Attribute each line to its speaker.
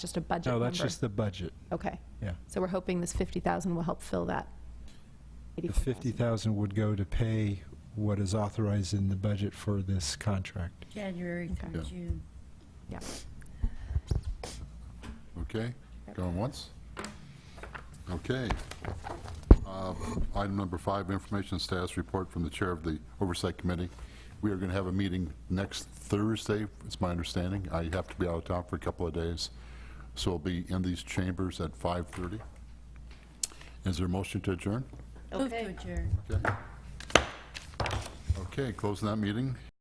Speaker 1: just a budget
Speaker 2: No,
Speaker 1: number?
Speaker 2: that's just the budget,
Speaker 1: Okay,
Speaker 2: yeah.
Speaker 1: so we're hoping this 50,000 will help fill that.
Speaker 2: The 50,000 would go to pay what is authorized in the budget for this contract.
Speaker 3: January through
Speaker 4: Okay. Yeah.
Speaker 3: June.
Speaker 4: Okay, going once? Okay. Uh, Item number five, information status report from the Chair of the Oversight Committee. We are going to have a meeting next Thursday, it's my understanding. I have to be out of town for a couple of days, so I'll be in these chambers at 5:30. Is there a motion to adjourn?
Speaker 3: Move to adjourn.
Speaker 4: Okay. Okay, closing that meeting.